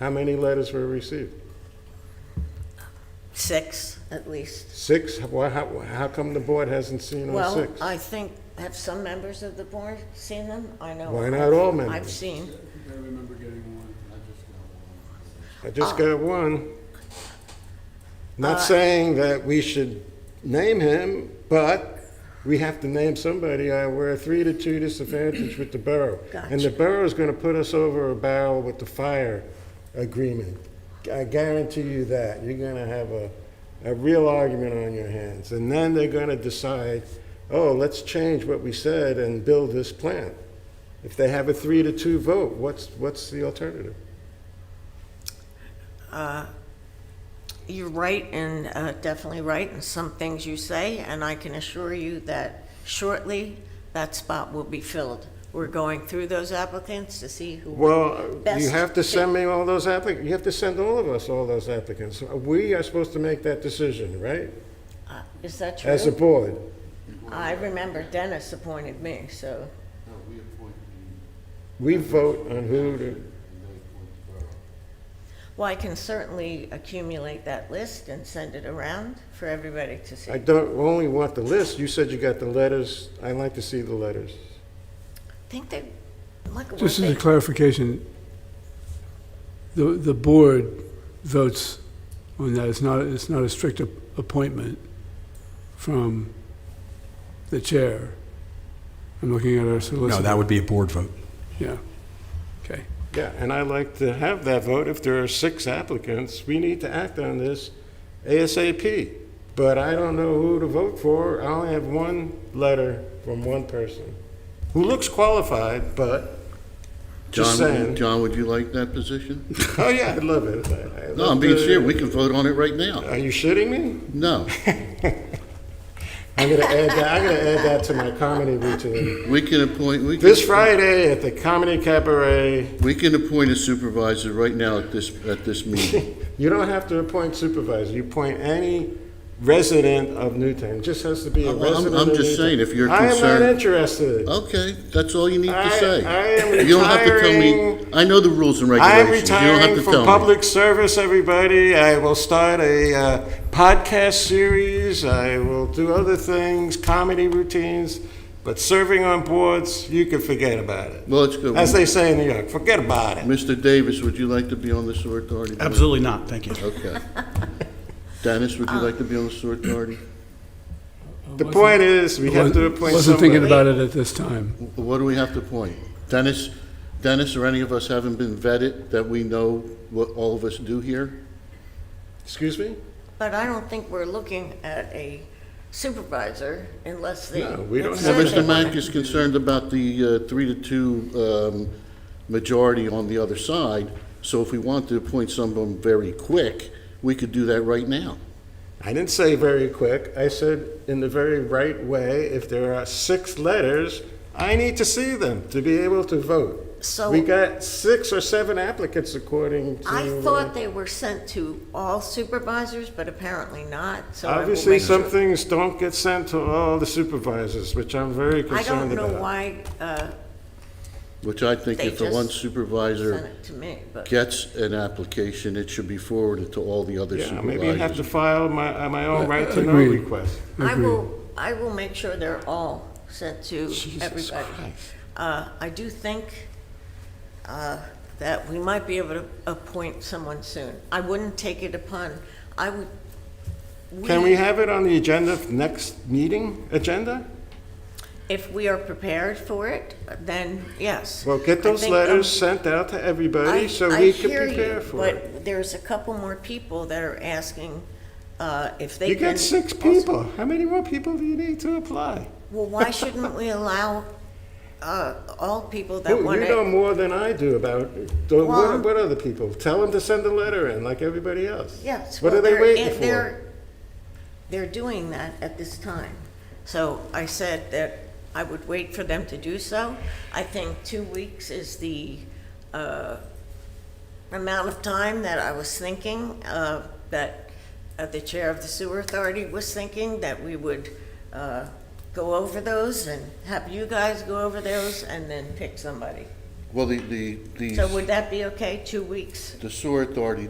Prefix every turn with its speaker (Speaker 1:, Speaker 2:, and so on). Speaker 1: How many letters were received?
Speaker 2: six at least.
Speaker 1: Six? Why, how, how come the board hasn't seen all
Speaker 2: Well,
Speaker 1: six?
Speaker 2: I think, have some members of the board seen them? I know.
Speaker 1: Why not all members?
Speaker 2: I've seen,
Speaker 3: I remember getting one, I just
Speaker 1: I just got
Speaker 3: got one.
Speaker 1: one. Not saying that we should name him, but we have to name somebody. Uh, We're a three to two disadvantage with the borough. And the
Speaker 2: Gotcha.
Speaker 1: borough's gonna put us over a barrel with the fire agreement. I guarantee you that. You're gonna have a, a real argument on your hands. And then they're gonna decide, oh, let's change what we said and build this plant. If they have a three to two vote, what's, what's the alternative?
Speaker 2: you're right and uh, definitely right in some things you say, and I can assure you that shortly, that spot will be filled. We're going through those applicants to see who.
Speaker 1: Well, you
Speaker 2: Best
Speaker 1: have to send me all those applic, you have to send all of us all those applicants. We are supposed to make that decision, right?
Speaker 2: uh, Is that true?
Speaker 1: As a board.
Speaker 2: I remember Dennis appointed me, so,
Speaker 3: No, we appoint the,
Speaker 1: We vote on who to,
Speaker 3: and they appoint the borough.
Speaker 2: well, I can certainly accumulate that list and send it around for everybody to see.
Speaker 1: I don't, only want the list. You said you got the letters. i like to see the letters.
Speaker 2: think they, like, what
Speaker 4: Just as
Speaker 2: they
Speaker 4: a clarification, the, the board votes on that, it's not, it's not a strict ap- appointment from the chair. I'm looking at our
Speaker 5: No,
Speaker 4: solicitor.
Speaker 5: that would be a board vote.
Speaker 4: Yeah, okay.
Speaker 1: Yeah, and I like to have that vote. If there are six applicants, we need to act on this ASAP. But I don't know who to vote for. I only have one letter from one person who looks qualified, but just saying.
Speaker 6: John, John, would you like that position?
Speaker 1: Oh yeah, I love it. I- I
Speaker 6: No,
Speaker 1: love
Speaker 6: I'm being
Speaker 1: the-
Speaker 6: serious, we can vote on it right now.
Speaker 1: Are you shitting me?
Speaker 6: No,
Speaker 1: I'm gonna add that. I'm gonna add that to my comedy routine.
Speaker 6: we can appoint, we
Speaker 1: This
Speaker 6: can,
Speaker 1: Friday at the Comedy Cabaret.
Speaker 6: we can appoint a supervisor right now at this, at this meeting.
Speaker 1: You don't have to appoint supervisor. You appoint any resident of Newtown. It just has to be a
Speaker 6: I'm- I'm-
Speaker 1: resident.
Speaker 6: I'm
Speaker 1: of
Speaker 6: just
Speaker 1: Newtown.
Speaker 6: saying, if you're
Speaker 1: I am
Speaker 6: concerned-
Speaker 1: not interested.
Speaker 6: Okay, that's all you need to
Speaker 1: I-
Speaker 6: say.
Speaker 1: I am
Speaker 6: You don't have to tell me.
Speaker 1: retiring.
Speaker 6: I know the rules and
Speaker 1: I am
Speaker 6: regulations. You don't have
Speaker 1: retiring
Speaker 6: to
Speaker 1: from
Speaker 6: tell me.
Speaker 1: public service, everybody. I will start a uh, podcast series. I will do other things, comedy routines. But serving on boards, you can forget about it.
Speaker 6: Well, it's good.
Speaker 1: As they say in New York, forget about it.
Speaker 6: Mr. Davis, would you like to be on the sewer authority? board?
Speaker 5: Absolutely not, thank you.
Speaker 6: Okay. Dennis, would you like to be on the sewer authority?
Speaker 1: The point is, we have to appoint
Speaker 4: Wasn't thinking
Speaker 1: somebody.
Speaker 4: about it at this time.
Speaker 6: Wh- What do we have to appoint? Dennis, Dennis or any of us haven't been vetted that we know what all of us do here?
Speaker 1: Excuse me?
Speaker 2: But I don't think we're looking at a supervisor unless they.
Speaker 1: No, we don't
Speaker 2: it's
Speaker 6: Now,
Speaker 1: have
Speaker 2: not
Speaker 6: Mr.
Speaker 2: that-
Speaker 6: Mack is concerned about the uh, three to two um, majority on the other side, so if we want to appoint someone very quick, we could do that right now.
Speaker 1: I didn't say very quick. I said in the very right way, if there are six letters, I need to see them to be able to vote.
Speaker 2: So-
Speaker 1: We got six or seven applicants according to.
Speaker 2: I
Speaker 1: uh,
Speaker 2: thought they were sent to all supervisors, but apparently not, so. I will
Speaker 1: Obviously,
Speaker 2: make sure-
Speaker 1: some things don't get sent to all the supervisors, which I'm very
Speaker 2: I
Speaker 1: concerned
Speaker 2: don't
Speaker 1: about.
Speaker 2: know why uh,
Speaker 6: Which I think
Speaker 2: They
Speaker 6: if the
Speaker 2: just
Speaker 6: one
Speaker 2: sent
Speaker 6: supervisor
Speaker 2: it to me, but
Speaker 6: gets an application, it should be forwarded to all the other
Speaker 1: Yeah, maybe I have to
Speaker 6: supervisors.
Speaker 1: file my, uh, my own right to know
Speaker 4: Agreed.
Speaker 1: request.
Speaker 2: I
Speaker 4: Agreed.
Speaker 2: will, I will make sure they're all sent to
Speaker 1: Jesus
Speaker 2: everybody.
Speaker 1: Christ.
Speaker 2: Uh, I do think uh, that we might be able to appoint someone soon. I wouldn't take it upon, I would.
Speaker 1: Can we have it on the agenda, for next meeting agenda?
Speaker 2: If we are prepared for it, then yes.
Speaker 1: Well, get
Speaker 2: I
Speaker 1: those
Speaker 2: think,
Speaker 1: letters
Speaker 2: um,
Speaker 1: sent out to
Speaker 2: I-
Speaker 1: everybody so we
Speaker 2: I
Speaker 1: can
Speaker 2: hear you,
Speaker 1: prepare for it.
Speaker 2: But there's a couple more people that are asking uh, if they
Speaker 1: You
Speaker 2: can.
Speaker 1: got six
Speaker 2: also-
Speaker 1: people. How many more people do you need to apply?
Speaker 2: Well, why shouldn't we allow uh, all people that
Speaker 1: You
Speaker 2: want
Speaker 1: you know
Speaker 2: to?
Speaker 1: more than I do about, uh, the-
Speaker 2: Well-
Speaker 1: what what other people? Tell them to send a letter in, like everybody else.
Speaker 2: Yes.
Speaker 1: What
Speaker 2: well,
Speaker 1: are they
Speaker 2: they're-
Speaker 1: waiting
Speaker 2: it-
Speaker 1: for?
Speaker 2: They're, they're doing that at this time. So I said that I would wait for them to do so. I think two weeks is the uh, amount of time that I was thinking, uh, that uh, the chair of the sewer authority was thinking, that we would uh, go over those and have you guys go over those and then pick somebody. Well, the, the,
Speaker 6: So would
Speaker 2: the,
Speaker 6: that be okay, two weeks?
Speaker 2: the sewer authority